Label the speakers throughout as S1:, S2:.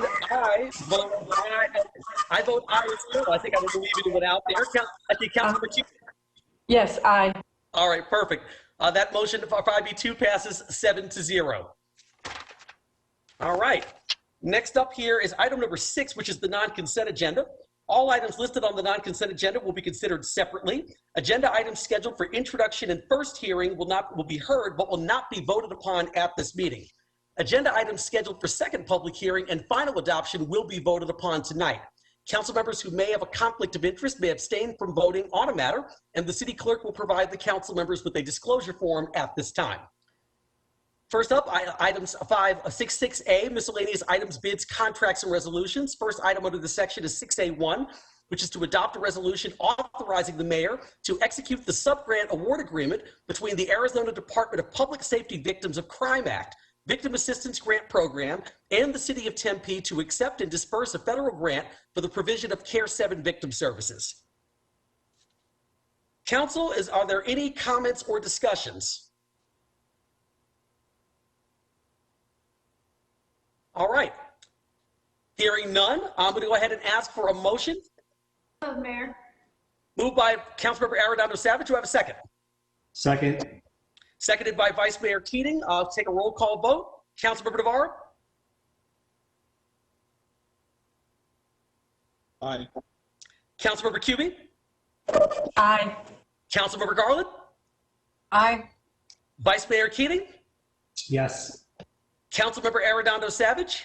S1: I vote aye. I vote aye as well. I think I would leave it without there. Count- I think Councilman Chu.
S2: Yes, aye.
S1: All right, perfect. Uh, That motion for 5B2 passes seven to zero. All right. Next up here is item number six, which is the non-consent agenda. All items listed on the non-consent agenda will be considered separately. Agenda items scheduled for introduction and first hearing will not, will be heard, but will not be voted upon at this meeting. Agenda items scheduled for second public hearing and final adoption will be voted upon tonight. Council members who may have a conflict of interest may abstain from voting on a matter, and the city clerk will provide the council members with a disclosure form at this time. First up, I- items uh, 566A, miscellaneous items, bids, contracts, and resolutions. First item under the section is 6A1, which is to adopt a resolution authorizing the mayor to execute the subgrant award agreement between the Arizona Department of Public Safety Victims of Crime Act, Victim Assistance Grant Program, and the City of Tempe to accept and disperse a federal grant for the provision of Care 7 victim services. Council, is, are there any comments or discussions? All right. Hearing none, I'm going to go ahead and ask for a motion.
S3: So moved, Mayor.
S1: Moved by Councilmember Arredondo Savage. Do I have a second?
S4: Second,
S1: Seconded by Vice Mayor Keating. I'll take a roll call vote. Councilmember Navarro?
S5: Aye.
S1: Councilmember Cubey?
S2: Aye.
S1: Councilmember Garland?
S2: Aye.
S1: Vice Mayor Keating?
S4: yes.
S1: Councilmember Arredondo Savage?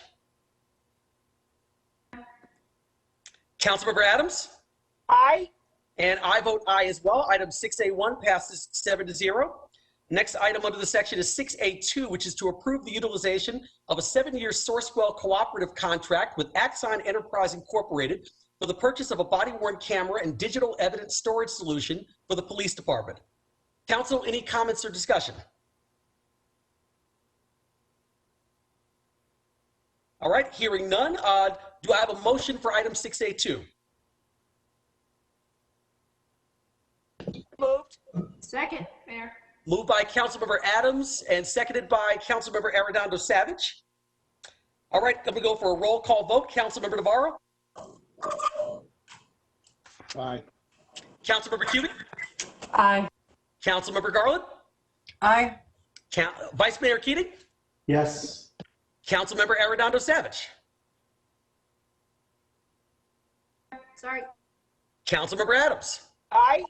S1: Councilmember Adams?
S2: Aye.
S1: And I vote aye as well. Item 6A1 passes seven to zero. Next item under the section is 6A2, which is to approve the utilization of a seven-year Sourcewell cooperative contract with Axon Enterprise Incorporated for the purchase of a body-worn camera and digital evidence storage solution for the police department. Council, any comments or discussion? All right, hearing none, uh, do I have a motion for item 6A2?
S2: Moved.
S3: Second, Mayor.
S1: Moved by Councilmember Adams and seconded by Councilmember Arredondo Savage. All right, let me go for a roll call vote. Councilmember Navarro,
S5: Aye.
S1: Councilmember Cubey,
S2: Aye.
S1: Councilmember Garland,
S2: Aye.
S1: Coun- Vice Mayor Keating,
S4: Yes.
S1: Councilmember Arredondo Savage,
S3: Sorry.
S1: Councilmember Adams.
S2: Aye.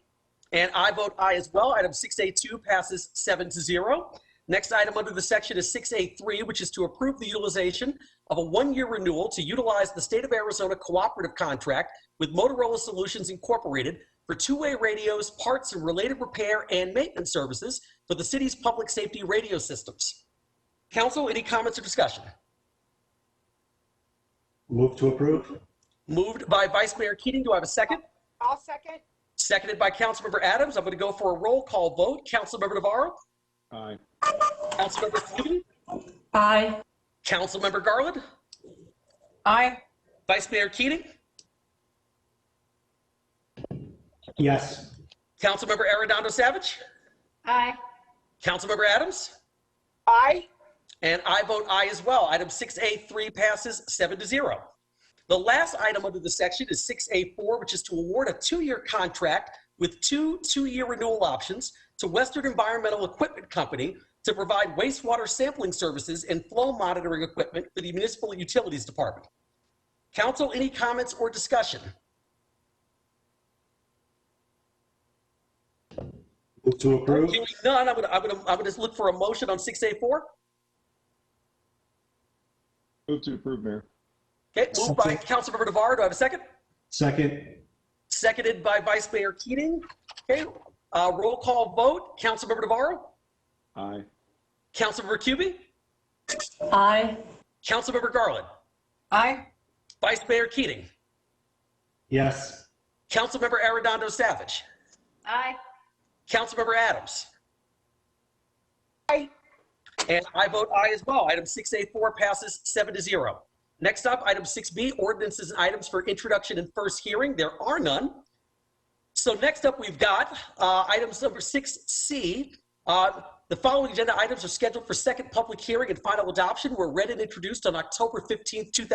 S1: And I vote aye as well. Item 6A2 passes seven to zero. Next item under the section is 6A3, which is to approve the utilization of a one-year renewal to utilize the State of Arizona Cooperative Contract with Motorola Solutions Incorporated for two-way radios, parts and related repair and maintenance services for the city's public safety radio systems. Council, any comments or discussion?
S4: Move to approve?
S1: Moved by Vice Mayor Keating. Do I have a second?
S2: I'll second.
S1: Seconded by Councilmember Adams. I'm going to go for a roll call vote. Councilmember Navarro?
S5: Aye.
S1: Councilmember Cloutier?
S2: Aye.
S1: Councilmember Garland,
S2: Aye.
S1: Vice Mayor Keating,
S4: Yes.
S1: Councilmember Arredondo Savage,
S3: Aye.
S1: Councilmember Adams,
S2: Aye.
S1: and I vote aye as well. Item 6A3 passes seven to zero. The last item under the section is 6A4, which is to award a two-year contract with two two-year renewal options to Western Environmental Equipment Company to provide wastewater sampling services and flow monitoring equipment for the Municipal Utilities Department. Council, any comments or discussion?
S4: Move to approve?
S1: Hearing none, I'm gonna, I'm gonna, I'm gonna just look for a motion on 6A4.
S5: Move to approve, Mayor.
S1: Okay, moved by
S4: Second.
S1: Councilmember Navarro. Do I have a second?
S4: Second,
S1: Seconded by Vice Mayor Keating. Okay, uh, roll call vote. Councilmember Navarro,
S5: Aye.
S1: Councilmember Cubey,
S2: Aye.
S1: Councilmember Garland,
S2: Aye.
S1: Vice Mayor Keating,
S4: yes.
S1: Councilmember Arredondo Savage,
S3: Aye.
S1: Councilmember Adams.
S2: Aye.
S1: And I vote aye as well. Item 6A4 passes seven to zero. Next up, item 6B, ordinances and items for introduction and first hearing. There are none. So next up, we've got uh, items number 6C. Uh, The following agenda items are scheduled for second public hearing and final adoption were read and introduced on October 15th, 2000.